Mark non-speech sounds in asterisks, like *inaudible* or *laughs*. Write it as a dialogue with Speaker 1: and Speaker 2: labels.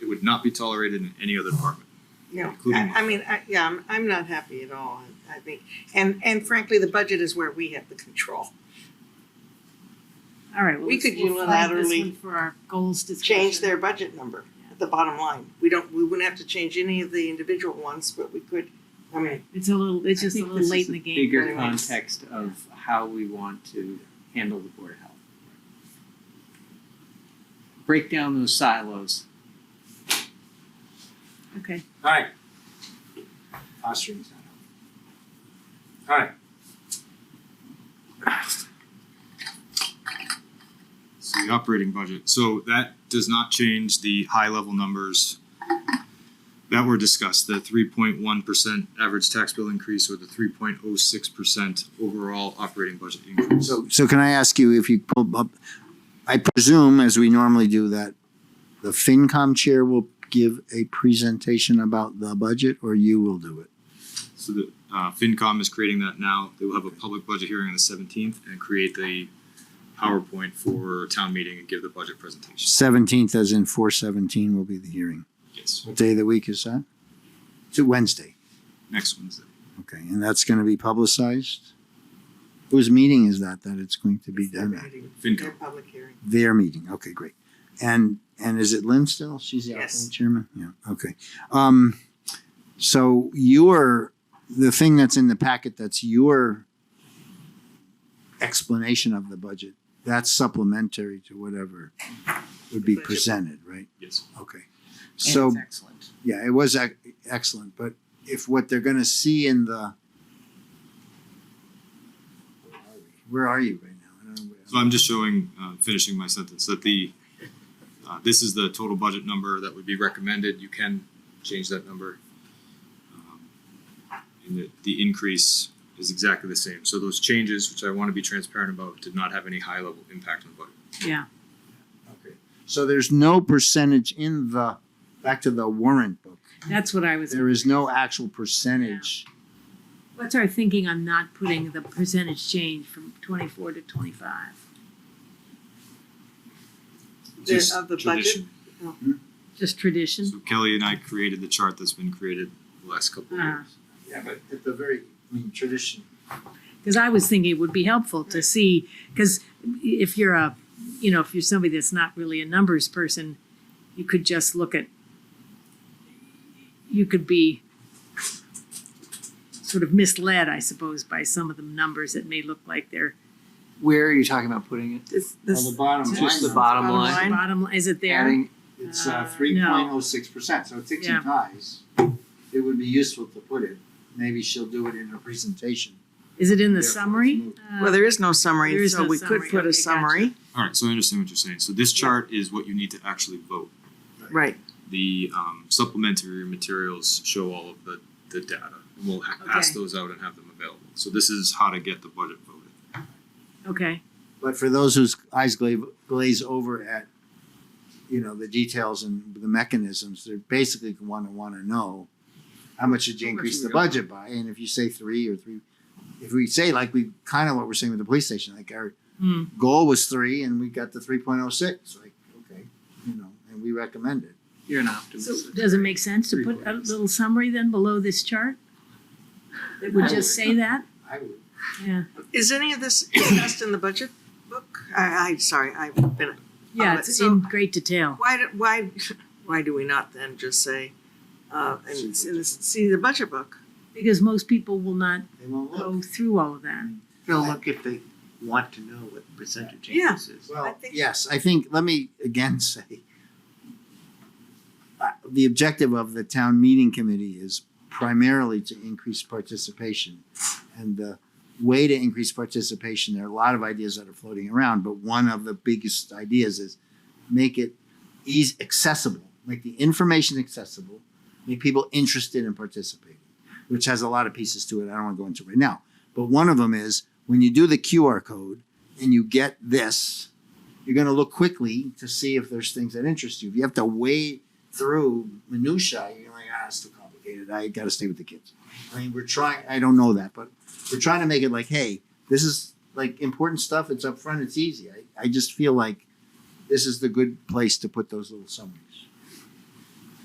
Speaker 1: would not be tolerated in any other department.
Speaker 2: No,
Speaker 1: Including
Speaker 2: I, I mean, I, yeah, I'm, I'm not happy at all, I I think, and, and frankly, the budget is where we have the control.
Speaker 3: All right, well,
Speaker 2: We
Speaker 3: let's-
Speaker 2: could
Speaker 3: we'll flag this
Speaker 2: unilaterally
Speaker 3: one for our goals discussion.
Speaker 2: Change their budget number, the bottom line, we don't, we wouldn't have to change any of the individual ones, but we could, I mean,
Speaker 3: It's a little, it's
Speaker 4: I
Speaker 3: just a
Speaker 4: think
Speaker 3: little
Speaker 4: this
Speaker 3: late
Speaker 4: is
Speaker 3: in the
Speaker 4: a
Speaker 3: game.
Speaker 4: Bigger
Speaker 2: very much.
Speaker 4: context of how we want to handle the board of health. Break down those silos.
Speaker 3: Okay,
Speaker 5: Alright. Posturing's not helpful. Alright.
Speaker 1: So the operating budget, so that does not change the high level numbers that were discussed, the three point one percent average tax bill increase or the three point oh six percent overall operating budget increase.
Speaker 6: So, so can I ask you if you pull up, I presume, as we normally do, that the FinCom chair will give a presentation about the budget or you will do it?
Speaker 1: So the, uh, FinCom is creating that now, they will have a public budget hearing on the seventeenth and create the PowerPoint for town meeting and give the budget presentation.
Speaker 6: Seventeenth, as in four seventeen, will be the hearing.
Speaker 1: Yes,
Speaker 6: What day of the week is that? It's a Wednesday.
Speaker 1: next Wednesday.
Speaker 6: Okay, and that's gonna be publicized? Whose meeting is that, that it's going to be
Speaker 2: it's their
Speaker 6: done at?
Speaker 2: meeting,
Speaker 1: FinCom.
Speaker 2: their public hearing.
Speaker 6: Their meeting, okay, great. And, and is it Lynn still? She's the
Speaker 2: Yes.
Speaker 6: outgoing chairman? Yeah, okay. Um, so your, the thing that's in the packet, that's your explanation of the budget, that's supplementary to whatever would be
Speaker 2: Budget.
Speaker 6: presented, right?
Speaker 1: Yes.
Speaker 6: Okay.
Speaker 4: and
Speaker 6: So
Speaker 4: it's Excellent.
Speaker 6: yeah, it was ec- excellent. But if what they're going to see in the where are you right now? I don't know.
Speaker 1: So I'm just showing, uh, finishing my sentence, that the, uh, this is the total budget number that would be recommended. You can change that number. Um, And the, the increase is exactly the same. So those changes, which I want to be transparent about, did not have any high-level impact on the budget.
Speaker 3: yeah,
Speaker 6: okay. So there's no percentage in the back to the warrant book.
Speaker 3: that's what I was,
Speaker 6: There is no actual percentage.
Speaker 3: what's our thinking on not putting the percentage change from twenty-four to twenty-five?
Speaker 2: The-
Speaker 1: Just
Speaker 2: of the
Speaker 1: tradition.
Speaker 3: Just tradition?
Speaker 1: So Kelly and I created the chart that's been created the last couple of
Speaker 3: Ah.
Speaker 1: years.
Speaker 6: Yeah, but at the very I mean tradition.
Speaker 3: Because I was thinking it would be helpful to see, because if you're a, you know, if you're somebody that's not really a numbers person, you could just look at, you could be sort of misled, I suppose, by some of the numbers that may look like they're,
Speaker 4: Where are you talking about putting it?
Speaker 3: this,
Speaker 5: On the
Speaker 3: this.
Speaker 5: bottom
Speaker 4: Just the
Speaker 5: line,
Speaker 4: bottom
Speaker 2: Bottom
Speaker 4: line.
Speaker 2: line.
Speaker 3: Bottom, line- is it there?
Speaker 6: Adding it's
Speaker 3: Uh,
Speaker 6: uh,
Speaker 3: no.
Speaker 6: three point oh six percent, so it ticks
Speaker 3: Yeah.
Speaker 6: and ties. It would be useful to put it. Maybe she'll do it in her presentation.
Speaker 3: Is it in the
Speaker 6: Therefore, it's
Speaker 3: summary?
Speaker 6: moved.
Speaker 3: Uh,
Speaker 2: Well, there is no
Speaker 3: There
Speaker 2: summary,
Speaker 3: is
Speaker 2: so
Speaker 3: no
Speaker 2: we could
Speaker 3: summary.
Speaker 2: put
Speaker 3: Okay,
Speaker 2: a
Speaker 3: gotcha.
Speaker 2: summary,
Speaker 1: All right, so I understand what you're saying. So this chart is what you need to actually vote.
Speaker 2: right,
Speaker 1: The um, supplementary materials show all of the, the data. And we'll ha- pass
Speaker 3: Okay.
Speaker 1: those out and have them available. So this is how to get the budget voted.
Speaker 3: Okay,
Speaker 6: But for those whose eyes glaze, glaze over at, you know, the details and the mechanisms, they're basically going to want to know how much did you
Speaker 1: How much
Speaker 6: increase
Speaker 1: we
Speaker 6: the
Speaker 1: got.
Speaker 6: budget by? And if you say three or three, if we say like we kind of what we're saying with the police station, like our
Speaker 3: Hmm.
Speaker 6: goal was three and we got the 3.06, like, okay, you know, and we recommend it.
Speaker 4: You're an
Speaker 3: so
Speaker 4: optimist.
Speaker 3: does it make sense to put a little summary then below this chart? That would just say that?
Speaker 6: I would.
Speaker 3: Yeah,
Speaker 2: is any of this discussed in the budget book? I, I, sorry, I've been
Speaker 3: yeah,
Speaker 2: Um,
Speaker 3: it's
Speaker 2: so-
Speaker 3: in great detail.
Speaker 2: Why, do- why, why do we not then just say, uh, and, and see the budget book?
Speaker 3: Because most people will not
Speaker 6: They won't look.
Speaker 3: go through all of that.
Speaker 7: They'll look if they want to know what the percentage
Speaker 2: Yeah.
Speaker 7: increase is.
Speaker 2: I
Speaker 6: Well,
Speaker 2: think-
Speaker 6: yes, I think, let me again *laughs* say, uh, the objective of the town meeting committee is primarily to increase participation. And the way to increase participation, there are a lot of ideas that are floating around, but one of the biggest ideas is make it easy, accessible, make the information accessible, make people interested in participating, which has a lot of pieces to it. I don't want to go into right now. But one of them is when you do the QR code and you get this, you're going to look quickly to see if there's things that interest you. If you have to wade through minutiae, you're like, ah, it's too complicated. I got to stay with the kids. I mean, we're trying, I don't know that, but we're trying to make it like, hey, this is like important stuff. It's up front, it's easy. I, I just feel like this is the good place to put those little summaries.